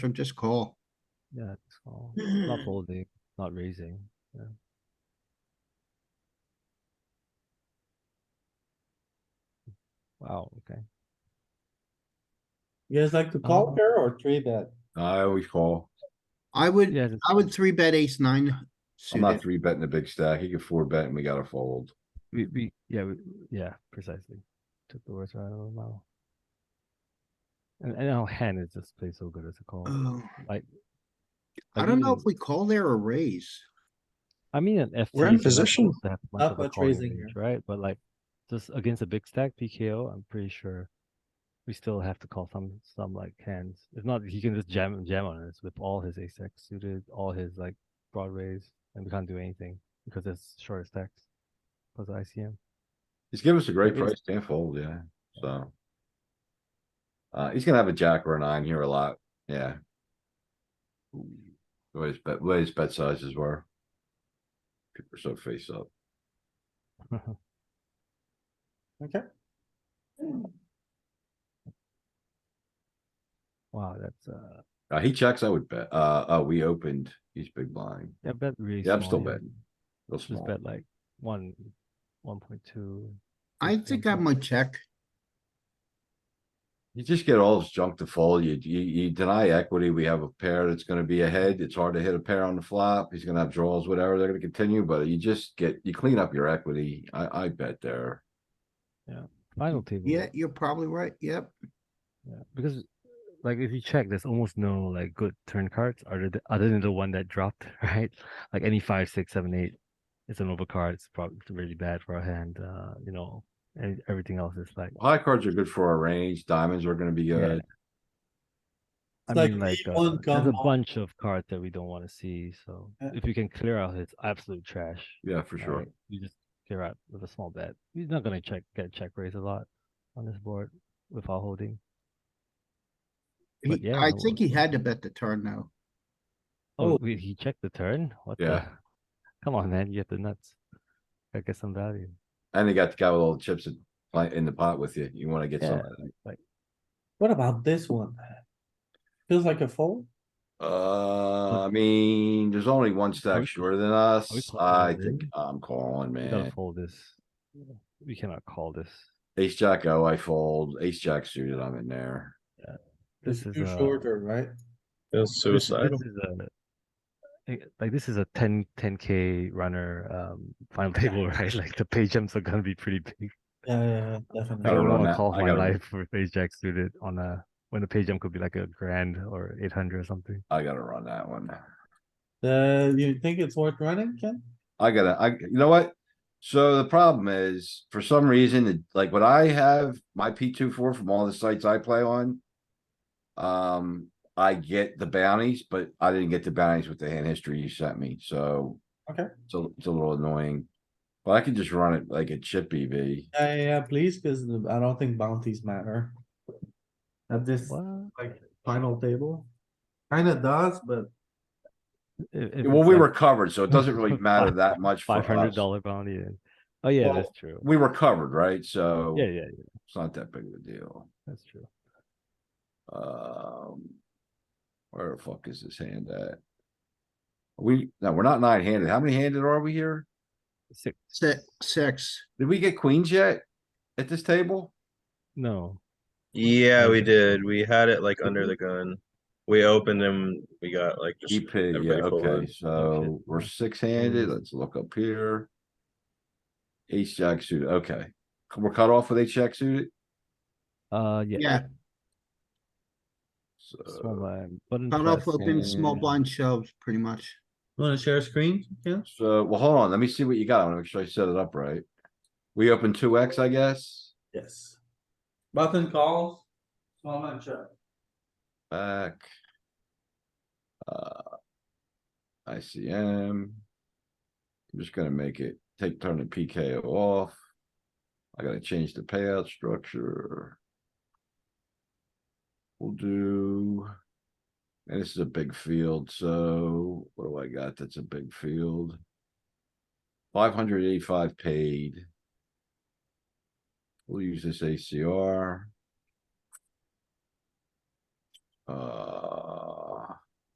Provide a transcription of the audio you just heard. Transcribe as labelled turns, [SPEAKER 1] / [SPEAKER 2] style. [SPEAKER 1] From just call.
[SPEAKER 2] Yeah, it's all, not folding, not raising. Yeah. Wow, okay.
[SPEAKER 3] You guys like to call
[SPEAKER 2] Uh-huh.
[SPEAKER 3] here or three bet?
[SPEAKER 4] Uh, I always call.
[SPEAKER 1] I would,
[SPEAKER 2] Yeah, that's
[SPEAKER 1] I would three bet ace nine
[SPEAKER 4] I'm not
[SPEAKER 1] suited.
[SPEAKER 4] three betting a big stack. He can four bet and we gotta fold.
[SPEAKER 2] we, we, yeah, we, yeah, precisely. Took the words right out of my mouth. And, and our hand is just played so good as a call.
[SPEAKER 1] Oh,
[SPEAKER 2] Like,
[SPEAKER 1] I don't know if
[SPEAKER 2] mean-
[SPEAKER 1] we call there or raise.
[SPEAKER 2] I mean, an FT.
[SPEAKER 5] We're in
[SPEAKER 2] is not
[SPEAKER 5] position.
[SPEAKER 2] supposed to have much
[SPEAKER 3] Not
[SPEAKER 2] of a
[SPEAKER 3] much
[SPEAKER 2] calling
[SPEAKER 3] raising
[SPEAKER 2] range, Right, but like, just against a big stack PKO, I'm pretty sure we still have to call some, some like hands. If not, he can just jam, jam on us with all his ace X suited, all his like broad raise, and we can't do anything because it's short stacks. Because of ICM.
[SPEAKER 4] He's giving us a great
[SPEAKER 2] It is-
[SPEAKER 4] price, can't fold, yeah, so. Uh, he's gonna have a jack or a nine here a lot, yeah. What his bet, what his bet sizes were. People are so face up.
[SPEAKER 3] Okay,
[SPEAKER 2] Wow, that's, uh,
[SPEAKER 4] Uh, he checks, I would bet. Uh, oh, we opened. He's big blind.
[SPEAKER 2] yeah, bet really
[SPEAKER 4] Yeah, I'm
[SPEAKER 2] small
[SPEAKER 4] still
[SPEAKER 2] here.
[SPEAKER 4] betting. Real
[SPEAKER 2] Just
[SPEAKER 4] small.
[SPEAKER 2] bet like one, one point two.
[SPEAKER 1] I think I might check.
[SPEAKER 4] You just get all this junk to fold. You, you, you deny equity. We have a pair that's gonna be ahead. It's hard to hit a pair on the flop. He's gonna have draws, whatever. They're gonna continue, but you just get, you clean up your equity. I, I bet there.
[SPEAKER 2] Final table.
[SPEAKER 1] Yeah, you're probably right. Yep.
[SPEAKER 2] Yeah, because like if you check, there's almost no like good turn cards other than, other than the one that dropped, right? Like any five, six, seven, eight, it's an overcard. It's probably really bad for our hand. Uh, you know, and everything else is like
[SPEAKER 4] High cards are good for our range. Diamonds are gonna be
[SPEAKER 2] Yeah.
[SPEAKER 4] good.
[SPEAKER 2] I
[SPEAKER 3] It's like
[SPEAKER 2] mean, like
[SPEAKER 3] the
[SPEAKER 2] uh,
[SPEAKER 3] one
[SPEAKER 2] there's a
[SPEAKER 3] combo.
[SPEAKER 2] bunch of cards that we don't want to see. So
[SPEAKER 3] Yeah.
[SPEAKER 2] if you can clear out his absolute trash,
[SPEAKER 4] Yeah, for sure.
[SPEAKER 2] right, you just clear out with a small bet. He's not gonna check get check raise a lot on this board with our holding. But
[SPEAKER 1] He-
[SPEAKER 2] yeah,
[SPEAKER 1] I
[SPEAKER 2] no,
[SPEAKER 1] think he
[SPEAKER 2] uh,
[SPEAKER 1] had to bet the turn though.
[SPEAKER 2] Oh,
[SPEAKER 3] Oh.
[SPEAKER 2] wait, he checked the turn? What the?
[SPEAKER 4] Yeah.
[SPEAKER 2] Come on, man, you have the nuts. Gotta get some value.
[SPEAKER 4] And they got the guy with all the chips in- like, in the pot with you. You wanna get some.
[SPEAKER 2] Yeah. Like,
[SPEAKER 3] what about this one? Feels like a fold?
[SPEAKER 4] Uh, I mean, there's only one
[SPEAKER 2] we-
[SPEAKER 4] stack shorter than
[SPEAKER 2] are we
[SPEAKER 4] us.
[SPEAKER 2] calling
[SPEAKER 4] I
[SPEAKER 2] it
[SPEAKER 4] think
[SPEAKER 2] in?
[SPEAKER 4] I'm calling,
[SPEAKER 2] we gotta
[SPEAKER 4] man.
[SPEAKER 2] fold this. We cannot call this.
[SPEAKER 4] Ace jack O, I fold. Ace jack suited, I'm in there.
[SPEAKER 2] This is
[SPEAKER 3] It's too
[SPEAKER 2] a.
[SPEAKER 3] shorter, right?
[SPEAKER 5] That's
[SPEAKER 2] this-
[SPEAKER 5] suicidal.
[SPEAKER 2] This is a. eh, Like this is a 10 k runner um final table, right? Like the pay jumps are gonna be pretty big.
[SPEAKER 3] Yeah, yeah,
[SPEAKER 2] I
[SPEAKER 3] yeah,
[SPEAKER 4] Gotta
[SPEAKER 2] don't
[SPEAKER 4] run
[SPEAKER 3] definitely.
[SPEAKER 2] wanna
[SPEAKER 4] that-
[SPEAKER 2] call
[SPEAKER 4] I
[SPEAKER 2] my
[SPEAKER 4] gotta run-
[SPEAKER 2] life for ace jack suited on a, when the pay jump could be like a grand or eight hundred or something.
[SPEAKER 4] I gotta run that one.
[SPEAKER 3] Uh, you think it's worth running, Ken?
[SPEAKER 4] I gotta, I, you know what? So the problem is, for some reason, it- like when I have my P two four from all the sites I play on. Um, I get the bounties, but I didn't get the bounties with the hand history you sent me, so.
[SPEAKER 3] Okay.
[SPEAKER 4] It's a, it's a little annoying. But I can just run it like a chip E EV.
[SPEAKER 3] Yeah, yeah, yeah, please, cuz I don't think bounties matter. At this
[SPEAKER 2] What?
[SPEAKER 3] final table. Kinda does, but
[SPEAKER 2] If- if
[SPEAKER 4] Well,
[SPEAKER 2] it's
[SPEAKER 4] we
[SPEAKER 2] like-
[SPEAKER 4] were covered, so it doesn't really matter that much for
[SPEAKER 2] Five hundred
[SPEAKER 4] us.
[SPEAKER 2] dollar bounty. then. Oh yeah,
[SPEAKER 4] Well,
[SPEAKER 2] that's true.
[SPEAKER 4] We were covered, right? So
[SPEAKER 2] Yeah, yeah, yeah,
[SPEAKER 4] it's not that big of a deal.
[SPEAKER 2] that's true.
[SPEAKER 4] Um. Where the fuck is this hand at? We, no, we're not nine handed. How many handed are we here?
[SPEAKER 2] Six.
[SPEAKER 1] Six, six.
[SPEAKER 4] Did we get queens yet? At this table?
[SPEAKER 2] No,
[SPEAKER 5] Yeah, we
[SPEAKER 2] Okay.
[SPEAKER 5] did. We had it like under the gun. We opened and we got like just
[SPEAKER 4] EP, yeah,
[SPEAKER 5] everybody full
[SPEAKER 4] okay,
[SPEAKER 5] on.
[SPEAKER 4] so
[SPEAKER 2] shit.
[SPEAKER 4] we're six handed. Let's look up here. Ace jack suited, okay. We're cut off with ace jack suited,
[SPEAKER 2] uh, yeah.
[SPEAKER 1] Yeah,
[SPEAKER 2] Small
[SPEAKER 4] so.
[SPEAKER 2] blind, but in
[SPEAKER 1] cut off
[SPEAKER 2] plus,
[SPEAKER 1] open, small
[SPEAKER 4] yeah.
[SPEAKER 1] blind shoves, pretty much.
[SPEAKER 3] wanna share a screen, Ken?
[SPEAKER 4] So, well, hold on, let me see what you got. I wanna make sure I set it up right. We open two X, I guess.
[SPEAKER 3] Yes. Button calls. Small man check.
[SPEAKER 4] Back. Uh. ICM. I'm just gonna make it, take turn the PKO off. I gotta change the payout structure. We'll do. And this is a big field, so what do I got that's a big field? Five hundred eighty-five paid. We'll use this ACR. Uh.